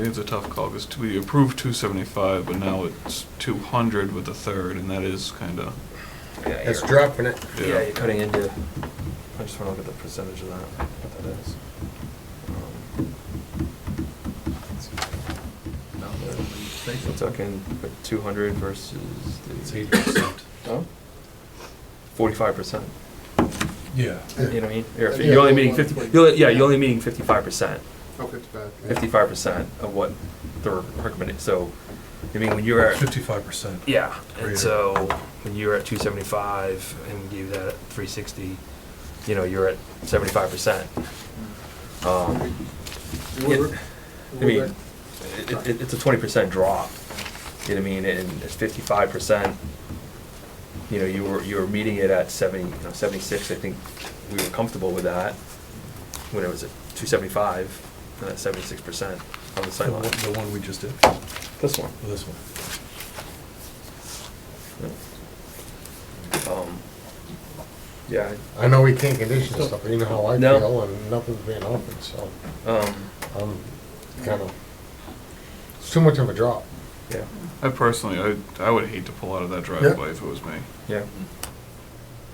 it's a tough call, because we approved two seventy-five, but now it's two hundred with the third, and that is kinda, It's dropping it. Yeah, you're cutting into, I just wanna look at the percentage of that, what that is. Um, We're talking two hundred versus the forty-five percent, Yeah. you know what I mean? Or if Yeah. You're only meeting fifty, you're, yeah, you're only meeting fifty-five percent, Oh, fifty-five. fifty-five percent of what the recommended, so, I mean, when you're at Fifty-five percent. Yeah, Greater. and so when you were at two seventy-five and we gave that at three sixty, you know, you're at seventy-five percent. Um, We're- Yeah. I we're mean, back. it, it, it's a twenty percent drop, you know what I mean, and it's fifty-five percent. You know, you were, you were meeting it at seventy, you know, seventy-six, I think we were comfortable with that when it was at two seventy-five, and at seventy-six percent on the The sideline. one the one we just did, This one. Well, this one. Um, Yeah, I know we can't condition stuff, but you know how I No. feel, and nothing's being offered, so um, I'm kind of, it's too much of a drop. yeah, I personally, I, I would hate to pull out of that driveway if it was me. yeah.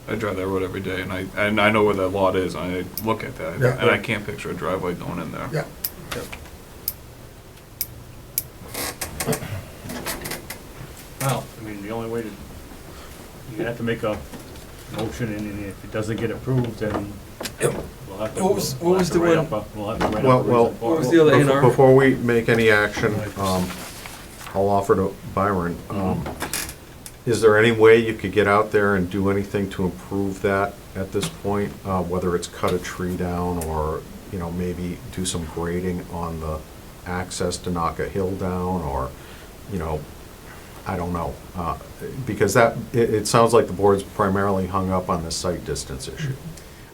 I drive that road every day, and I, and I know where that lot is, and I look at that, Yeah. and I can't picture a driveway going in there. Well, I mean, the only way to, you have to make a motion, and then if it doesn't get approved, then we'll have to. What was- we'll what have was to the write one- up a- We'll have to write up. Well, a well, reason for What was it. the other A and R? Before we make any action, Right. um, I'll offer to Byron, um, is there any way you could get out there and do anything to improve that at this point? Uh, Whether it's cut a tree down or, you know, maybe do some grading on the access to knock a hill down or, you know, I don't know. Uh, Because that, it, it sounds like the board's primarily hung up on the site distance issue.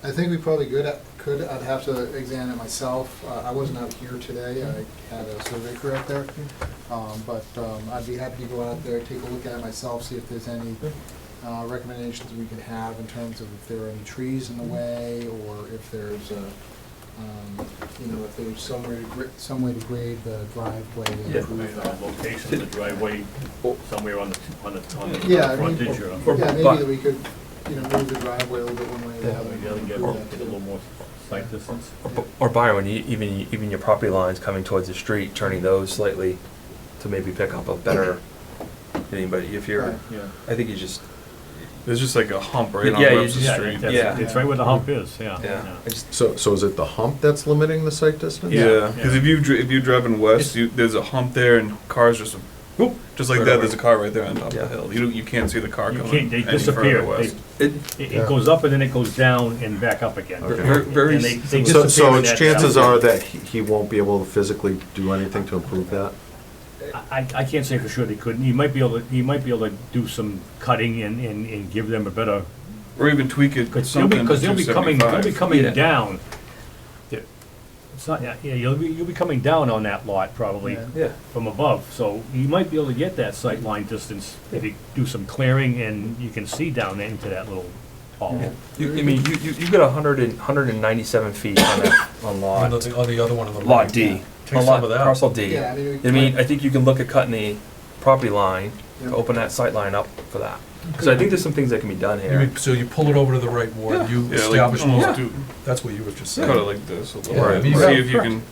I think we probably could, could, I'd have to examine it myself. Uh, I wasn't out here today, I had a survey crew out there. Um, But um, I'd be happy to go out there, take a look at it myself, see if there's any uh, recommendations we could have in terms of if there are any trees in the way, or if there's a, um, you know, if there's some way, to gra- some way to grade the driveway and Yeah. improve Uh, that. Location of the driveway, somewhere on the, on the, on the Yeah, I mean, frontage, or. Yeah, Or- maybe but- that we could, you know, move the driveway a little bit one way or the That other. way the other get, improve that get a little too. more sight distance. Or bu- Or Byron, you- even, even your property lines coming towards the street, turning those slightly to maybe pick up a better, anybody, if you're, Right. Yeah. I think you just, There's just like a hump right on Yeah, you Webster just- Street. that's- Yeah. It's right where the hump is, yeah. yeah. I just- So, so is it the hump that's limiting the site distance? Yeah, Yeah. because if you dri- if you're driving west, you, there's a hump there, and cars just whoop, just like Right that. away. There's a car right there on top Yeah. of the hill. You don't- you can't see the car You coming. can't, they any disappear. further They- west. It, It, it goes up and then it goes down and back up again. Okay. Ver- very And they- they So, disappear so in its that chances down- are that he he won't be able to physically do anything to improve that? I, I can't say for sure they couldn't. You might be able to, you might be able to do some cutting and, and, and give them a better, or even tweak it because they'll be, something. because they'll be coming, they'll be Yeah. coming down. It's not, yeah, yeah, you'll be, you'll be coming down on that lot probably Yeah. yeah, from above, so you might be able to get that sight line distance if you do some clearing and you can see down into that little hall. you, I mean, you, you, you got a hundred and, hundred and ninety-seven feet on a, on On lot, the, on the other one on the. lot right. D. Take on some lot- of that. Parcel D. Yeah, I mean, we- I mean, I think you can look at cutting the property line, Yeah. to open that sight line up for that. So I think there's some things that can be done You here. mean- So you pull it over to the right ward, you Yeah, like establish, almost more- do, that's what you were just cut it saying. like this a little Yeah, bit. these- See if you can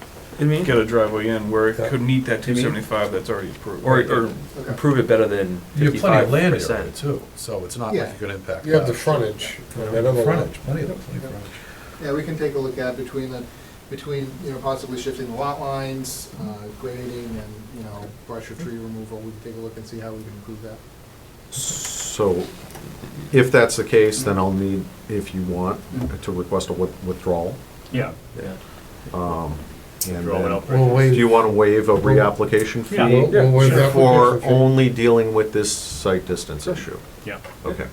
I mean, get a driveway in where it Yeah. could meet that You mean- 275 that's already approved. or, or Okay. improve it better than You have plenty of fifty-five land area percent. too, so it's not like Yeah. you're gonna impact. You have the that. frontage. and that other lot. Frontage, plenty of, plenty of frontage. Yeah, we can take a look at between the, between, you know, possibly shifting the lot lines, uh, grading and, you know, brush or tree removal, we can take a look and see how we can improve that. So if that's the case, then I'll need, if you want, to request a with- withdrawal. Yeah. Yeah. And Draw it then, up. We'll do you waive, want to waive a reapplication Yeah. fee? we'll we'll waive that. For only dealing with this site distance issue? Yeah. Okay,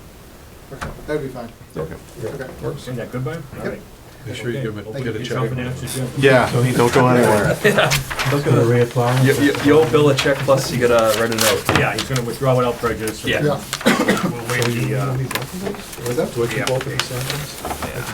Okay, that'd be fine. okay. Okay. Isn't that good, Byron? All right. Make sure you give him, a- Okay. get a Get check. yourself an answer, Jim. Yeah, don't go anywhere. You, you, you owe Bill a check, plus you gotta write a note. Yeah, he's gonna withdraw without prejudice. Yeah. Yeah. We'll waive the, uh, Do I keep Yeah. both of these signed ones?